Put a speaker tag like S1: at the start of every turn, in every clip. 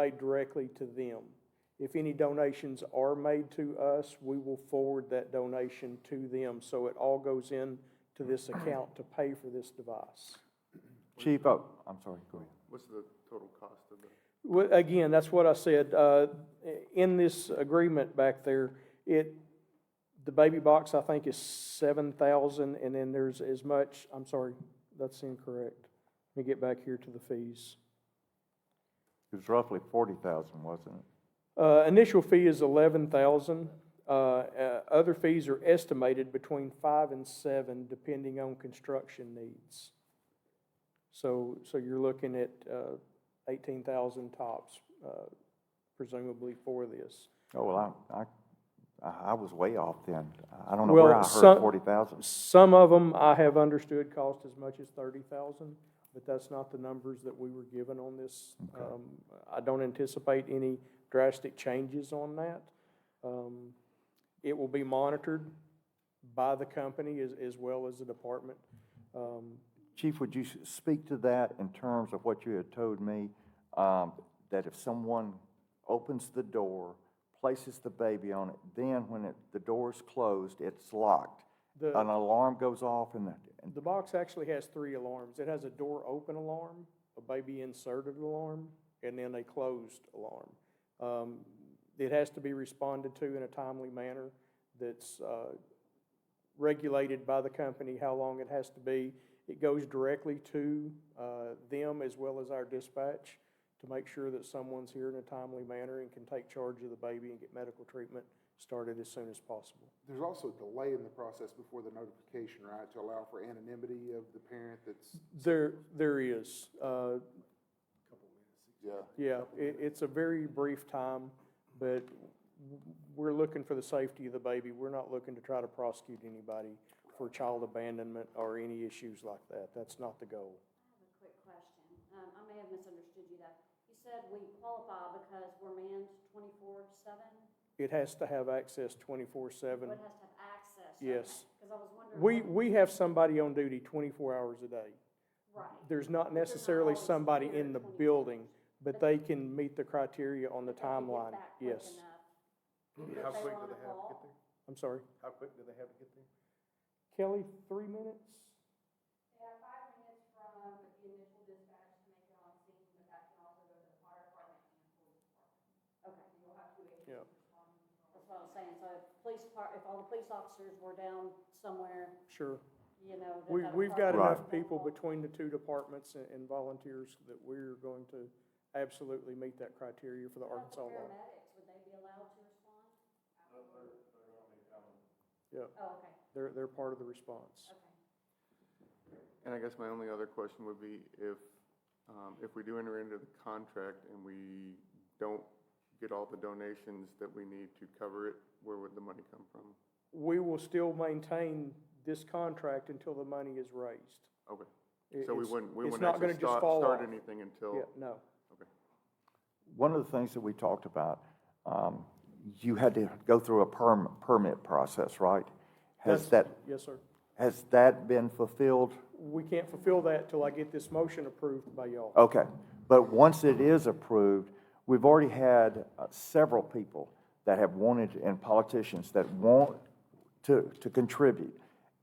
S1: made directly to them. If any donations are made to us, we will forward that donation to them, so it all goes in to this account to pay for this device.
S2: Chief, oh, I'm sorry, go ahead.
S3: What's the total cost of it?
S1: Well, again, that's what I said, uh, in this agreement back there, it, the baby box, I think, is seven thousand, and then there's as much, I'm sorry, that's incorrect. Let me get back here to the fees.
S2: It was roughly forty thousand, wasn't it?
S1: Uh, initial fee is eleven thousand. Uh, uh, other fees are estimated between five and seven, depending on construction needs. So, so you're looking at, uh, eighteen thousand tops, uh, presumably for this.
S2: Oh, well, I, I, I was way off then. I don't know
S1: Well,
S2: where I heard
S1: some-
S2: forty thousand.
S1: Some of them I have understood cost as much as thirty thousand, but that's not the numbers that we were given on this.
S2: Okay.
S1: Um, I don't anticipate any drastic changes on that. Um, It will be monitored by the company as, as well as the department. Um,
S2: Chief, would you s- speak to that in terms of what you had told me? Um, that if someone opens the door, places the baby on it, then when it, the door is closed, it's locked.
S1: The-
S2: An alarm goes off and, the- and,
S1: The box actually has three alarms. It has a door open alarm, a baby inserted alarm, and then a closed alarm. Um, it has to be responded to in a timely manner that's, uh, regulated by the company, how long it has to be. It goes directly to, uh, them as well as our dispatch to make sure that someone's here in a timely manner and can take charge of the baby and get medical treatment started as soon as possible.
S3: There's also a delay in the process before the notification, right, to allow for anonymity of the parent that's,
S1: There, there is, uh,
S3: yeah.
S1: Yeah, it, it's a very brief time, but w- we're looking for the safety of the baby. We're not looking to try to prosecute anybody for child abandonment or any issues like that. That's not the goal.
S4: have a quick question. Um, I may have misunderstood you though. You said we qualify because we're manned twenty-four seven?
S1: It has to have access twenty-four seven.
S4: Or it has to have access?
S1: Yes.
S4: Because I was wondering.
S1: We, we have somebody on duty twenty-four hours a day.
S4: Right.
S1: There's not necessarily
S4: always
S1: somebody
S4: there
S1: in the
S4: 24.
S1: building, but they can meet the criteria on the timeline. Yes.
S4: How quick do they have to get
S1: I'm sorry.
S3: How quick do they have to get there?
S1: Kelly, three minutes?
S4: They have five minutes from the initial dispatch to make it on scene, but that can also go to the fire department and police department. Okay. You'll have to
S1: Yeah.
S4: That's what I was saying. So if police part, if all the police officers were down somewhere,
S1: Sure.
S4: you know. that
S1: We,
S4: that
S1: we've got
S2: Right.
S4: department-
S1: enough people between the two departments and- and volunteers that we're going to absolutely meet that criteria for the
S4: What about
S1: Arkansas law.
S4: the Paramedics, would they be allowed to respond?
S1: Yeah,
S4: Oh, okay,
S1: they're, they're part of the response.
S4: okay.
S5: And I guess my only other question would be if, um, if we do enter into the contract and we don't get all the donations that we need to cover it, where would the money come from?
S1: We will still maintain this contract until the money is raised.
S5: Okay,
S1: It-
S5: so we
S1: it's-
S5: wouldn't, we
S1: it's
S5: wouldn't
S1: not gonna
S5: actually
S1: just
S5: start,
S1: fall
S5: start
S1: off.
S5: anything
S1: Yeah,
S5: until,
S1: no.
S5: okay.
S2: one of the things that we talked about, um, you had to go through a perm, permit process, right? Has
S1: That's-
S2: that,
S1: Yes, sir.
S2: has that been fulfilled?
S1: We can't fulfill that till I get this motion approved by y'all.
S2: Okay, but once it is approved, we've already had uh, several people that have wanted, and politicians that want to, to contribute.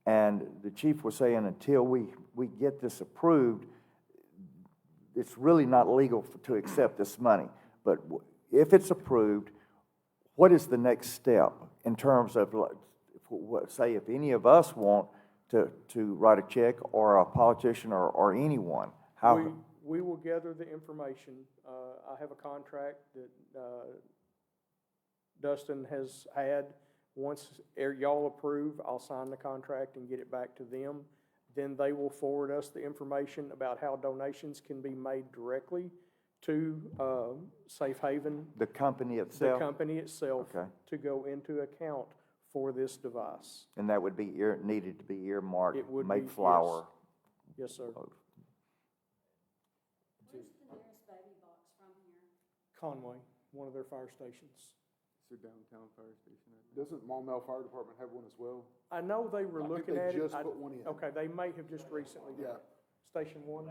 S2: And the chief was saying, until we, we get this approved, it's really not legal f- to accept this money. But w- if it's approved, what is the next step in terms of, like, if w- what- say, if any of us want to, to write a check or a politician or, or anyone?
S1: We,
S2: How,
S1: we will gather the information. Uh, I have a contract that, uh, Dustin has had. Once er- y'all approve, I'll sign the contract and get it back to them. Then they will forward us the information about how donations can be made directly to, uh, Safe Haven,
S2: the company
S1: the
S2: itself?
S1: company itself,
S2: Okay.
S1: to go into account for this device.
S2: And that would be ear, needed to be earmarked,
S1: It would be,
S2: make
S1: yes.
S2: flour. Oh.
S1: Yes, sir.
S4: Where's the nearest baby box from here?
S1: Conway, one of their fire stations.
S5: So downtown fire station, I think.
S3: Doesn't Maumelle Fire Department have one as well?
S1: I know they were
S3: I think
S1: looking
S3: they
S1: at it.
S3: just
S1: I-
S3: put one in.
S1: Okay, they may have just recently done
S3: Yeah.
S1: it. Station one?